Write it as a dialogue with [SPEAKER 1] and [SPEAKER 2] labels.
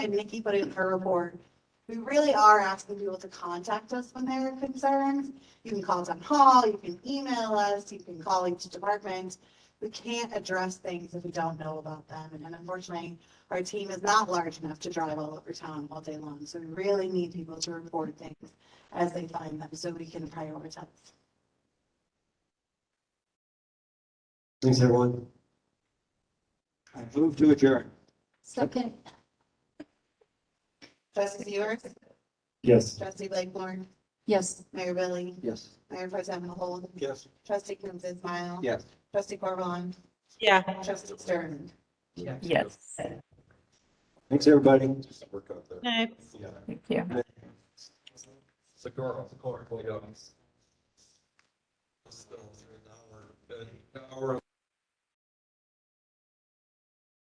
[SPEAKER 1] and Nikki put it in her report, we really are asking people to contact us when there are concerns. You can call town hall, you can email us, you can call each department. We can't address things if we don't know about them. And unfortunately, our team is not large enough to drive all over town all day long. So we really need people to report things as they find them so we can prioritize.
[SPEAKER 2] Thanks, everyone. I move to adjourn.
[SPEAKER 1] Second. Trustee York,
[SPEAKER 2] Yes.
[SPEAKER 1] trustee Blakeborn,
[SPEAKER 3] Yes.
[SPEAKER 1] Mayor Billy,
[SPEAKER 2] Yes.
[SPEAKER 1] Mayor Pro Tem Mahol,
[SPEAKER 2] Yes.
[SPEAKER 1] trustee Kums Ismail.
[SPEAKER 2] Yes.
[SPEAKER 1] Trustee Corvallon,
[SPEAKER 3] Yeah.
[SPEAKER 1] trustee Stern.
[SPEAKER 3] Yes.
[SPEAKER 2] Thanks, everybody.
[SPEAKER 4] Work out there. Yeah.
[SPEAKER 3] Thank you.
[SPEAKER 4] It's a girl, it's a girl, boy, yeah. Still, an hour, an hour